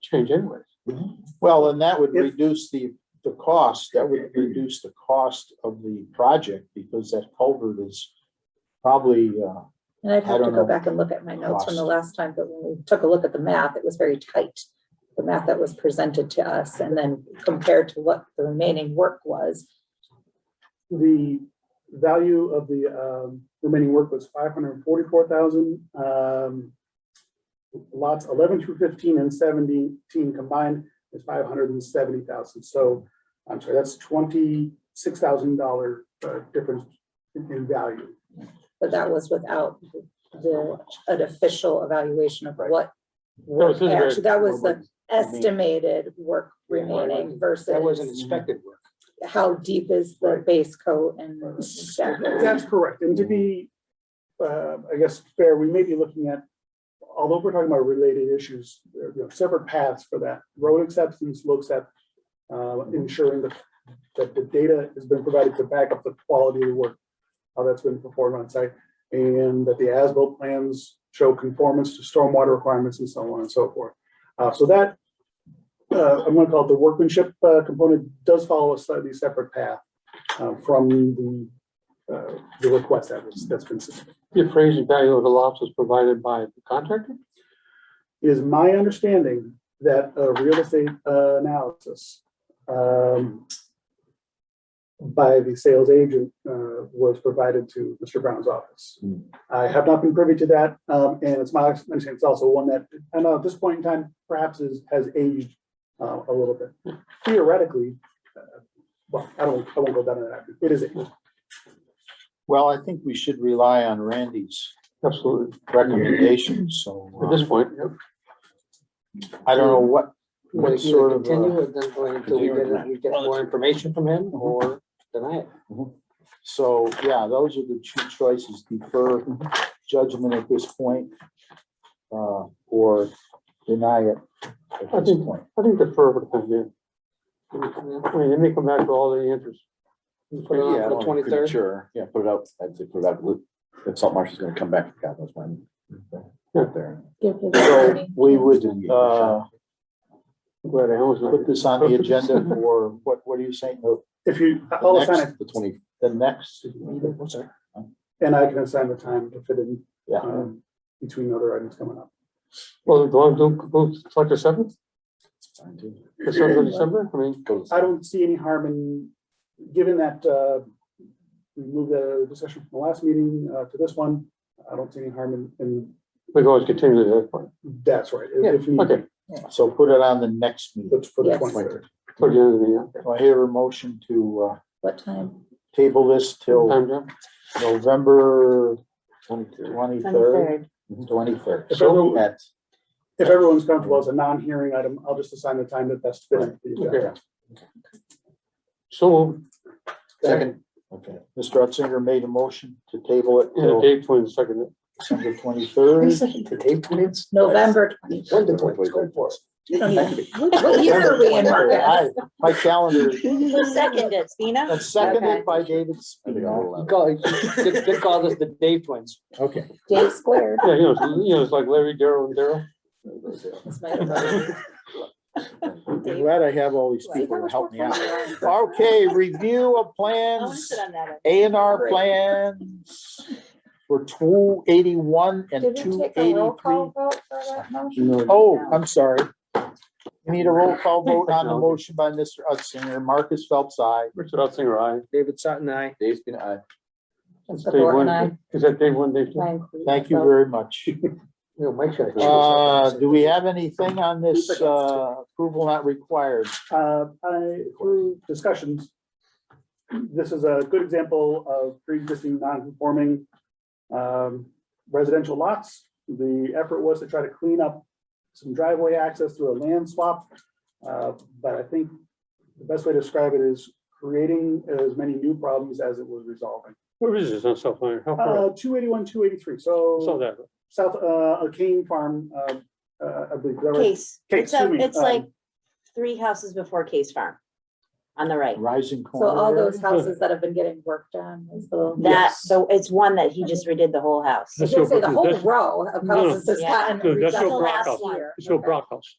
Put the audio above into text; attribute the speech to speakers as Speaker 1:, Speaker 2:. Speaker 1: change anyways.
Speaker 2: Well, and that would
Speaker 3: If-
Speaker 2: reduce the, the cost, that would reduce the cost of the project because that culvert is probably, uh,
Speaker 4: And I'd
Speaker 2: I
Speaker 4: have to
Speaker 2: don't
Speaker 4: go
Speaker 2: know.
Speaker 4: back and look at my notes from the
Speaker 2: Lost.
Speaker 4: last time, but when we took a look at the map, it was very tight. The map that was presented to us and then compared to what the remaining work was.
Speaker 3: The value of the um, remaining work was five hundred and forty-four thousand. um, Lots eleven through fifteen and seventeen combined is five hundred and seventy thousand. So I'm sorry, that's twenty-six thousand dollar uh, difference in in value.
Speaker 4: But that was without the, an official evaluation of what.
Speaker 1: No, this is very-
Speaker 4: Actually, that was the
Speaker 2: mean-
Speaker 4: estimated work remaining
Speaker 2: that wasn't
Speaker 4: versus
Speaker 2: expected work.
Speaker 4: how deep is the
Speaker 3: Right.
Speaker 4: base coat and that.
Speaker 3: That's correct. And to be, uh, I guess, fair, we may be looking at, although we're talking about related issues, there are, you know, separate paths for that. Road acceptance looks at uh, ensuring that, that the data has been provided to back up the quality of the work, how that's been performed on site, and that the ASBIL plans show conformance to stormwater requirements and so on and so forth. Uh, So that, uh, I'm going to call it the workmanship uh, component, does follow a slightly separate path uh, from the uh, the request that was, that's been submitted.
Speaker 1: The appraised value of the lots was provided by the contractor?
Speaker 3: It is my understanding that a real estate uh, analysis um, by the sales agent uh, was provided to Mr. Brown's office.
Speaker 2: Hmm.
Speaker 3: I have not been privy to that, um, and it's my understanding, it's also one that, I know at this point in time, perhaps is, has aged uh, a little bit. Theoretically, uh, well, I don't, I won't go down to that, avenue. it is aged.
Speaker 2: Well, I think we should rely on Randy's
Speaker 1: Absolutely,
Speaker 2: recommendations, so
Speaker 1: at this
Speaker 2: uh,
Speaker 1: point, yep.
Speaker 2: I don't know what,
Speaker 1: Would
Speaker 2: what
Speaker 1: it either
Speaker 2: sort of.
Speaker 1: continue
Speaker 2: uh,
Speaker 1: and then wait until we get, we get more information from him or deny it?
Speaker 2: So, yeah, those are the two choices, defer judgment at this point, uh, or deny it
Speaker 1: I
Speaker 2: at this
Speaker 1: think-
Speaker 2: point.
Speaker 1: I think the further thing, yeah. I mean, they may come back with all the answers. Put it on
Speaker 5: Yeah,
Speaker 1: for the twenty-third,
Speaker 5: Sure, yeah, put it out, I'd say put it out, with- if Salt Marsh is gonna come back, God knows when. Out there.
Speaker 2: So we would, uh,
Speaker 1: glad I always.
Speaker 2: put this on the agenda for, what, what are you saying, the
Speaker 3: If you, I'll
Speaker 2: the
Speaker 3: assign it
Speaker 2: next, the twenty, the next meeting?
Speaker 3: And I can assign the time to fit in
Speaker 2: Yeah.
Speaker 3: um, between other items coming up.
Speaker 1: Well, do I go, go select the seventh,
Speaker 5: It's fine, too.
Speaker 1: the seventh of December, I mean,
Speaker 5: Go to-
Speaker 3: I don't see any harm in, given that uh, we moved the discussion from the last meeting uh, to this one, I don't see any harm in- in,
Speaker 1: we can always continue to that point.
Speaker 3: that's right. if- if
Speaker 1: Okay,
Speaker 3: need,
Speaker 2: So put it on the next meeting.
Speaker 3: That's for the
Speaker 4: Yes.
Speaker 3: 23rd.
Speaker 1: for the end of the year.
Speaker 2: Do I hear a motion to, uh,
Speaker 4: What time?
Speaker 2: table this till
Speaker 1: Time, Jeff?
Speaker 2: November twenty-third, twenty-third.
Speaker 5: Mm-hmm.
Speaker 3: If everyone-
Speaker 2: At,
Speaker 3: If everyone's comfortable, as a non-hearing item, I'll just assign the time that best fits. the agenda.
Speaker 1: Okay. So,
Speaker 2: second, okay, Mr. Utzinger made a motion to table it
Speaker 1: yeah,
Speaker 2: till
Speaker 1: Dave Flynn seconded. it.
Speaker 2: December twenty-third.
Speaker 4: November twenty.
Speaker 5: When did we go for it?
Speaker 4: You don't even- What what year are we in, Marcus?
Speaker 2: My calendar,
Speaker 6: Who seconded, Spina?
Speaker 2: that's seconded by David
Speaker 5: I think
Speaker 2: Spina.
Speaker 5: I'll allow it.
Speaker 7: Call, they, they call this the day twins.
Speaker 2: Okay.
Speaker 4: Day squared.
Speaker 1: Yeah, you know, it's- you know, it's like Larry, Daryl, and Daryl.
Speaker 4: This might have been-
Speaker 2: I'm glad I have all these people to help me out. Okay, review of
Speaker 6: I want to
Speaker 2: plans,
Speaker 6: sit on that.
Speaker 2: A and R plans for two eighty-one and
Speaker 4: Did we
Speaker 2: two
Speaker 4: take a roll
Speaker 2: eighty-three.
Speaker 4: call vote for that motion?
Speaker 2: Oh, I'm sorry. We Need a roll call vote on the motion by Mr. Utzinger, Marcus Phelps, I.
Speaker 1: Richard Ottinger, aye.
Speaker 7: David Sutton, I.
Speaker 5: Dave's been, I,
Speaker 4: Just the
Speaker 1: Dave
Speaker 4: board
Speaker 1: one.
Speaker 4: and I.
Speaker 1: Is that Dave one, Dave two?
Speaker 4: Mine.
Speaker 2: Thank you very much.
Speaker 7: No, Mike should have-
Speaker 2: Uh, do we have anything on this, uh, approval not required?
Speaker 3: Uh, I, through discussions, this is a good example of pre-existing non-conforming um, residential lots. The effort was to try to clean up some driveway access through a land swap. Uh, But I think the best way to describe it is creating as many new problems as it was resolving.
Speaker 1: Where is this on South Flyer? How far?
Speaker 3: Uh, 281, 283,
Speaker 1: Saw
Speaker 3: so
Speaker 1: that.
Speaker 3: South, uh, Kane Farm, uh, uh, I believe. is that right?
Speaker 6: Case,
Speaker 3: Case,
Speaker 6: it's, a-
Speaker 3: excuse me,
Speaker 6: it's
Speaker 3: um,
Speaker 6: like three houses before Case Farm, on the right.
Speaker 2: Rising corner.
Speaker 4: So all those
Speaker 2: area?
Speaker 4: houses that have been getting worked on, is the-
Speaker 6: That,
Speaker 3: Yes.
Speaker 6: so it's one that he just redid the whole house.
Speaker 4: I was gonna say the whole
Speaker 1: That's-
Speaker 4: row of
Speaker 1: no,
Speaker 4: houses has
Speaker 6: no,
Speaker 4: gotten
Speaker 1: that's
Speaker 4: redone
Speaker 1: no
Speaker 4: last
Speaker 1: Brockhaus.
Speaker 4: year.
Speaker 1: It's no
Speaker 4: Okay.
Speaker 1: Brockhouse.